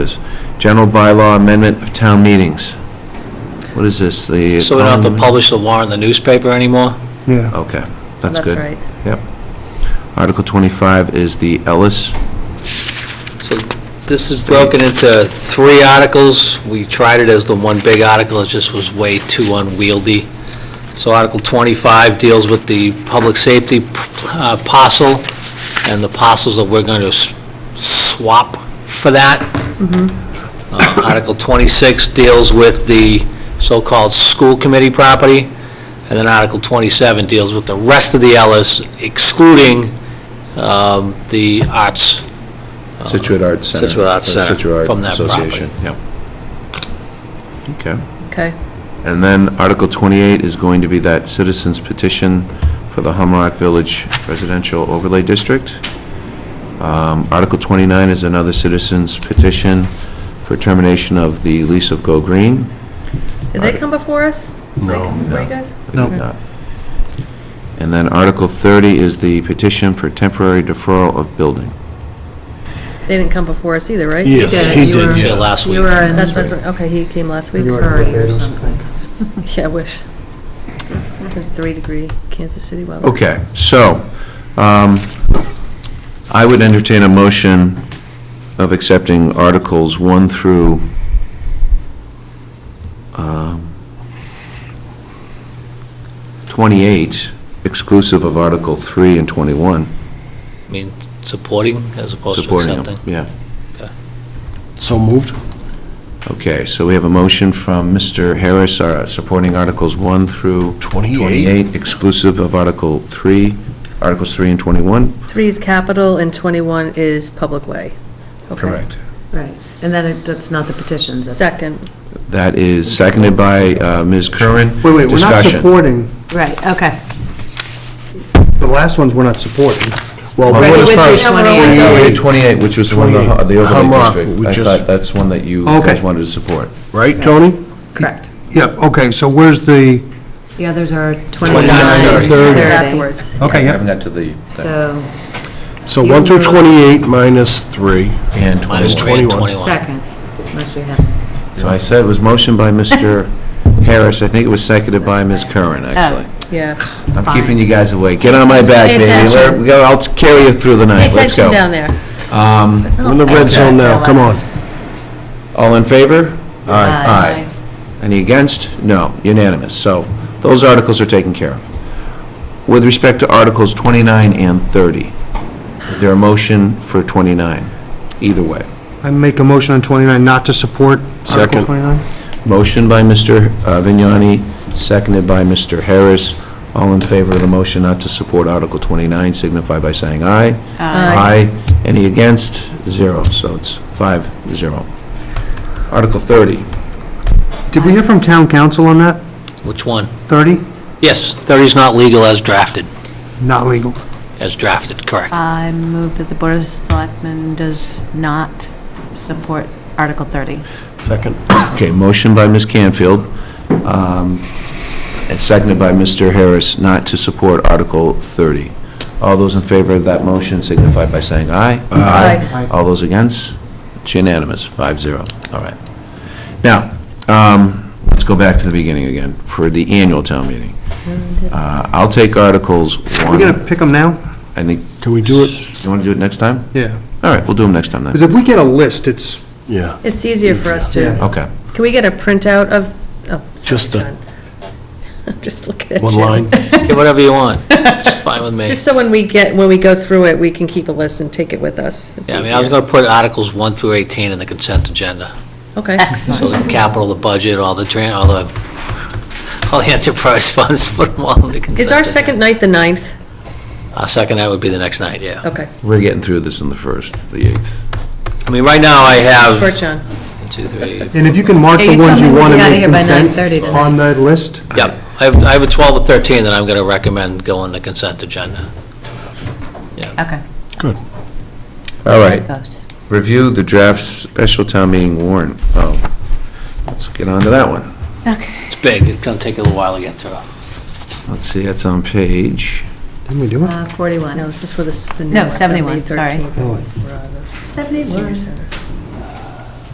is general bylaw amendment of town meetings. What is this, the? So we Um, don't have to publish the warrant in the newspaper anymore? Yeah, Okay, that's good. right. Article 25 is the Ellis. So this is broken into three articles. We tried it as the one big article, it just was way too unwieldy. So Article 25 deals with the public safety uh, parcel and the parcels that we're going to swap for that. Uh, Article 26 deals with the so-called school committee property, and then Article 27 deals with the rest of the Ellis excluding um, the arts Situate Arts Center. Oh. Situate Arts Uh, Center, Situate Art from that property. Association, Yep. Okay. Okay. And then Article 28 is going to be that citizens petition for the Humrock Village Residential Overlay District. Um, Article 29 is another citizens petition for termination of the lease of Go Green. Did they come before us? No. Before you guys? It did not. And then Article 30 is the petition for temporary deferral of building. They didn't come before us either, right? Yes, he You were- did, Yeah, yeah. last week. You were in That's, that's, okay, he came last week. You were- Missouri or something. Yeah, I wish. Three degree Kansas City weather. Okay, so, um, I would entertain a motion of accepting Articles 1 through, um, 28, exclusive of Article 3 and 21. I mean, supporting as opposed to supporting them. accepting. Yeah. So moved? Okay, so we have a motion from Mr. Harris, uh, supporting Articles 1 through 28, exclusive of Article 3, Articles 3 and 21? Three is capital and 21 is public way. Okay. Right, and then it- that's not the petitions. that's- Second, That is seconded by uh, Ms. Curran. wait, wait, we're not Discussion. supporting, Right, okay. the last ones we're not supporting. Well, Well, we what Ready is with far your as- 28? Oh, yeah, 28, which was the one, the ho- the 28, overlay Humrock, district. we I just- thought that's one that you guys Okay. wanted to support. right, Tony? Correct. Yeah, okay, so where's the, The others are 29, 29, 30. 30. afterwards. okay, I yeah, haven't got to the, So, So 1 through 28 minus 3. and Minus 3 21. and 21. second, unless you have, So I said it was motion by Mr. Harris, I think it was seconded by Ms. Curran, actually. Yeah. I'm fine. keeping you guys awake. Get on my back, Pay baby. attention. Let- go- I'll carry you through the Pay night. Let's attention go. down there. Um, We're in the red zone now, come on. All in favor? Aye. Any against? No, unanimous. So those articles are taken care of. With respect to Articles 29 and 30, is there a motion for 29? Either way. I make a motion on 29 not to support Article Second. 29? Motion by Mr. uh, Vignani, seconded by Mr. Harris. All in favor of the motion not to support Article 29, signify by saying aye. Aye. Aye. Any against? Zero. So it's five, zero. Article 30. Did we hear from town council on that? Which one? 30? Yes, 30 is not legal as drafted, Not legal. as drafted, correct. Uh, I move that the Board of Selectmen does not support Article 30. Second. Okay, motion by Ms. Canfield, um, and seconded by Mr. Harris not to support Article 30. All those in favor of that motion signify by saying aye. Aye. All those against? It's unanimous, 5-0. All right. Now, um, let's go back to the beginning again for the annual town meeting. Mm-hmm. Uh, I'll take Articles We 1, gonna I pick them now? think, Can we do it? you want to do it next time? Yeah. All right, we'll do them next time then. Because if we get a list, it's, Yeah. It's easier for us to, Yeah. Okay. can we get a printout of, oh, Just sorry, the- John. I'm just looking at you. One line. Get whatever you want, it's fine with me. Just so when we get, when we go through it, we can keep a list and take it with us. It's Yeah, I mean, I was easier. going to put Articles 1 through 18 in the consent agenda. Okay. So Excellent. the capital, the budget, all the, tran- all the, all the enterprise funds, put them all in the consent. Is our agenda. second night the ninth? Our second night would be the next night, yeah. Okay, We're getting through this on the 1st, the 8th. I mean, right now I short have, John. one, two, three, and if you can mark Yeah, the you ones told you me want to we gotta make hear by consent 9:30 tonight. on that list, yep. I have, I have a 12 or 13 that I'm going to recommend go on the consent agenda. Okay. Good. All right. Goes. Review the draft special town meeting warrant. Oh, let's get on to that one. Okay. It's big, it's going to take a little while to get through. Let's see, that's on page, didn't we do it? Uh, 41. No, this is for the. s- the new No, one, the 71, May sorry. 13th. We're on the Senior Center.